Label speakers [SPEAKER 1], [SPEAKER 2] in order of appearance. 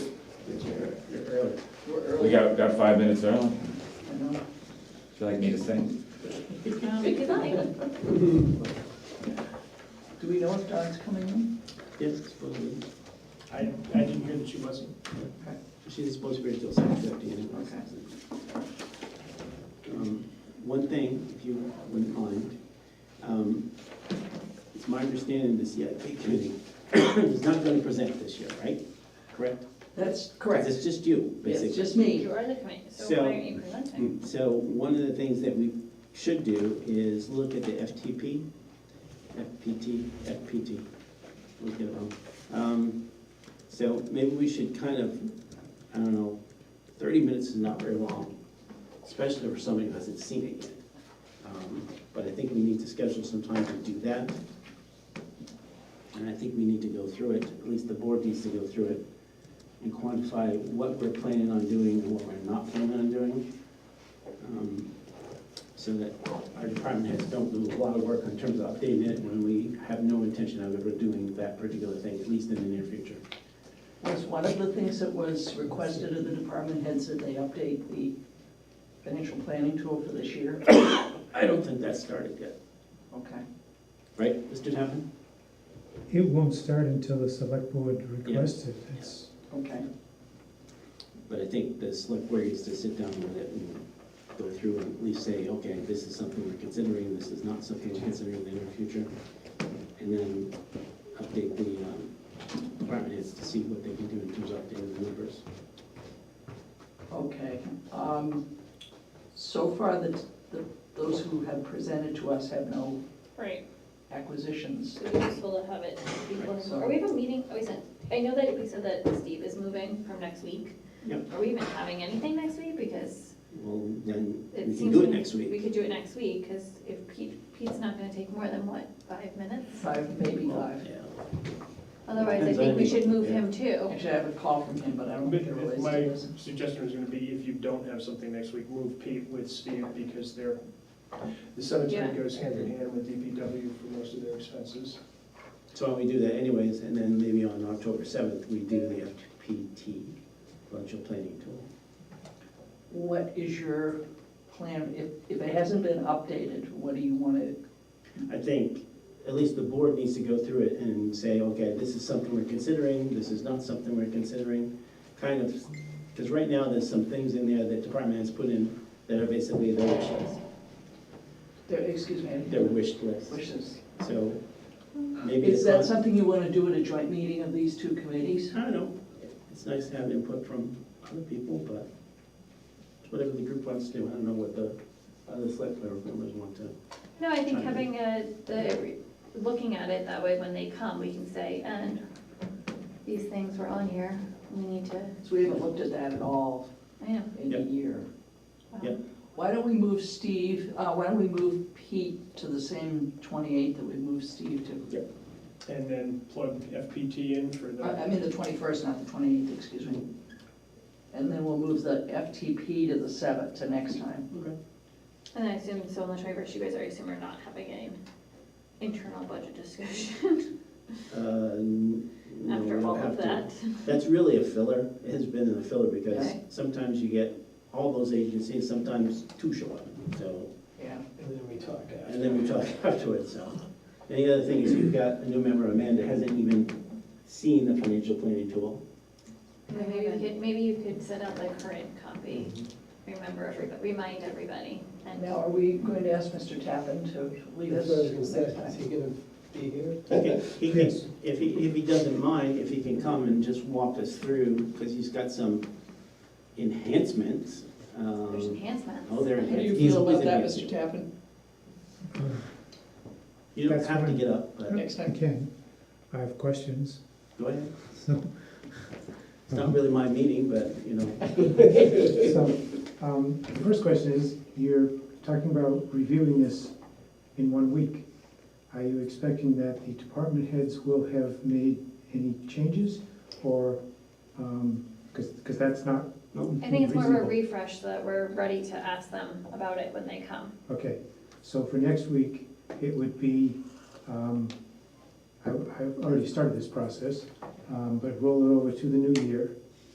[SPEAKER 1] we got, got five minutes early. Would
[SPEAKER 2] I know.
[SPEAKER 1] you like me to sing?
[SPEAKER 3] Good night.
[SPEAKER 2] Do we know if Dawn's coming in?
[SPEAKER 4] Yes, supposedly. I, I didn't hear that she wasn't. She's supposed to be here till seven fifty anyway. Um, One thing, if you wouldn't mind, um, it's my understanding this CIP committee is not gonna present this year, right? Correct?
[SPEAKER 2] That's correct.
[SPEAKER 4] It's just you,
[SPEAKER 2] It's
[SPEAKER 4] basically.
[SPEAKER 2] just me.
[SPEAKER 3] You are the committee, so
[SPEAKER 4] So- mm.
[SPEAKER 3] why aren't you presenting?
[SPEAKER 4] So one of the things that we should do is look at the FTP, FPT, FPT. We'll get it wrong. Um, So maybe we should kind of, I don't know, thirty minutes is not very long, especially for somebody who hasn't seen it yet. Um, But I think we need to schedule some time to do that. And I think we need to go through it, at least the board needs to go through it and quantify what we're planning on doing and what we're not planning on doing um, so that our department heads don't do a lot of work in terms of updating it when we have no intention of ever doing that particular thing, at least in the near future.
[SPEAKER 2] Was one of the things that was requested of the department heads that they update the financial planning tool for this year?
[SPEAKER 4] I don't think that started yet,
[SPEAKER 2] Okay.
[SPEAKER 4] right, Mr. Tappan?
[SPEAKER 5] It won't start until the select board requests it. It's,
[SPEAKER 2] Okay.
[SPEAKER 4] But I think the select board needs to sit down with it and go through and at least say, okay, this is something we're considering, this is not something we're considering in the near future. And then update the um, department heads to see what they can do in terms of updating the numbers.
[SPEAKER 2] Okay, um, so far, the, the, those who have presented to us have no
[SPEAKER 3] Right,
[SPEAKER 2] acquisitions.
[SPEAKER 3] so it's useful to have it before,
[SPEAKER 2] Right, so-
[SPEAKER 3] are we having a meeting, are we sent, I know that we said that Steve is moving from next week.
[SPEAKER 4] Yep.
[SPEAKER 3] Are we even having anything next week? Because
[SPEAKER 4] Well, then
[SPEAKER 3] it
[SPEAKER 4] we
[SPEAKER 3] seems.
[SPEAKER 4] can do it
[SPEAKER 3] we-
[SPEAKER 4] next week.
[SPEAKER 3] We could do it next week, because if Pete, Pete's not gonna take more than what, five minutes?
[SPEAKER 2] Five, maybe five.
[SPEAKER 4] Yeah.
[SPEAKER 3] Otherwise, I
[SPEAKER 4] Depends
[SPEAKER 3] think
[SPEAKER 4] on
[SPEAKER 3] we
[SPEAKER 4] you,
[SPEAKER 3] should move
[SPEAKER 4] yeah.
[SPEAKER 3] him too.
[SPEAKER 2] Actually, I have a call from him, but I don't
[SPEAKER 6] But
[SPEAKER 2] think it relates to
[SPEAKER 6] My
[SPEAKER 2] this.
[SPEAKER 6] suggestion is gonna be, if you don't have something next week, move Pete with Steve, because they're, the cemetery
[SPEAKER 3] Yeah.
[SPEAKER 6] goes hand in hand with DPW for most of their expenses.
[SPEAKER 4] So why don't we do that anyways, and then maybe on October seventh, we do the FPT, financial planning tool.
[SPEAKER 2] What is your plan, if, if it hasn't been updated, what do you want to,
[SPEAKER 4] I think at least the board needs to go through it and say, okay, this is something we're considering, this is not something we're considering, kind of, because right now, there's some things in there that department has put in that are basically their wish list,
[SPEAKER 2] there- excuse me, I
[SPEAKER 4] their
[SPEAKER 2] didn't-
[SPEAKER 4] wish list,
[SPEAKER 2] wishes?
[SPEAKER 4] so maybe
[SPEAKER 2] Is
[SPEAKER 4] it's
[SPEAKER 2] that
[SPEAKER 4] not,
[SPEAKER 2] something you want to do at a joint meeting of these two committees?
[SPEAKER 4] I don't know, it's nice to have input from other people, but it's whatever the group wants to do, I don't know what the other select board members want to.
[SPEAKER 3] No, I think
[SPEAKER 4] Okay.
[SPEAKER 3] having a, the, re- looking at it that way, when they come, we can say, and these things were on here, we need to,
[SPEAKER 2] So we haven't looked at that at all
[SPEAKER 3] I know.
[SPEAKER 2] in a
[SPEAKER 4] Yep.
[SPEAKER 2] year.
[SPEAKER 3] wow.
[SPEAKER 4] Yep.
[SPEAKER 2] Why don't we move Steve, uh, why don't we move Pete to the same twenty-eighth that we moved Steve to?
[SPEAKER 6] And then plug FPT in for
[SPEAKER 2] Uh, I
[SPEAKER 6] the,
[SPEAKER 2] mean, the twenty-first, not the twenty-eighth, excuse me. And then we'll move the FTP to the seventh, to next time.
[SPEAKER 4] Okay.
[SPEAKER 3] And I assume, so on the twenty-first, you guys already assume we're not having an internal budget discussion
[SPEAKER 4] uh,
[SPEAKER 3] after all of that.
[SPEAKER 4] That's really a filler, it has been a filler because
[SPEAKER 3] Okay.
[SPEAKER 4] sometimes you get all those agencies, sometimes two show up, so,
[SPEAKER 2] Yeah.
[SPEAKER 7] uh.
[SPEAKER 6] and then we talk after.
[SPEAKER 4] and then we talk afterwards, so. And the other thing is you've got a new member, Amanda, hasn't even seen the financial planning tool.
[SPEAKER 3] And Maybe you could, maybe you could send out the current copy,
[SPEAKER 4] Mm-hmm.
[SPEAKER 3] remember everybody, remind everybody, and
[SPEAKER 2] Now, are we going to ask Mr. Tappan to leave us?
[SPEAKER 7] That's what I was gonna
[SPEAKER 2] next
[SPEAKER 7] say,
[SPEAKER 2] time?
[SPEAKER 7] is he gonna be here?
[SPEAKER 4] Okay, He can,
[SPEAKER 5] Yes.
[SPEAKER 4] if he, if he doesn't mind, if he can come and just walk us through, because he's got some enhancements. um,
[SPEAKER 3] there's enhancements.
[SPEAKER 4] Oh, there it
[SPEAKER 2] How do you
[SPEAKER 4] is. He's
[SPEAKER 2] feel
[SPEAKER 4] always
[SPEAKER 2] about that,
[SPEAKER 4] enhancing.
[SPEAKER 2] Mr. Tappan?
[SPEAKER 4] You don't
[SPEAKER 5] That's
[SPEAKER 4] have to
[SPEAKER 5] fine.
[SPEAKER 4] get up, but
[SPEAKER 2] Next
[SPEAKER 5] I
[SPEAKER 2] time.
[SPEAKER 5] can, I have questions.
[SPEAKER 4] go ahead.
[SPEAKER 5] So,
[SPEAKER 4] It's not really my meeting, but, you know.
[SPEAKER 5] so, um, the first question is, you're talking about reviewing this in one week. Are you expecting that the department heads will have made any changes or, um, because, because that's not.
[SPEAKER 3] I think it's more of a
[SPEAKER 5] reasonable.
[SPEAKER 3] refresh so that we're ready to ask them about it when they come.
[SPEAKER 5] Okay, so for next week, it would be, um, I- I've already started this process, um, but roll it over to the new year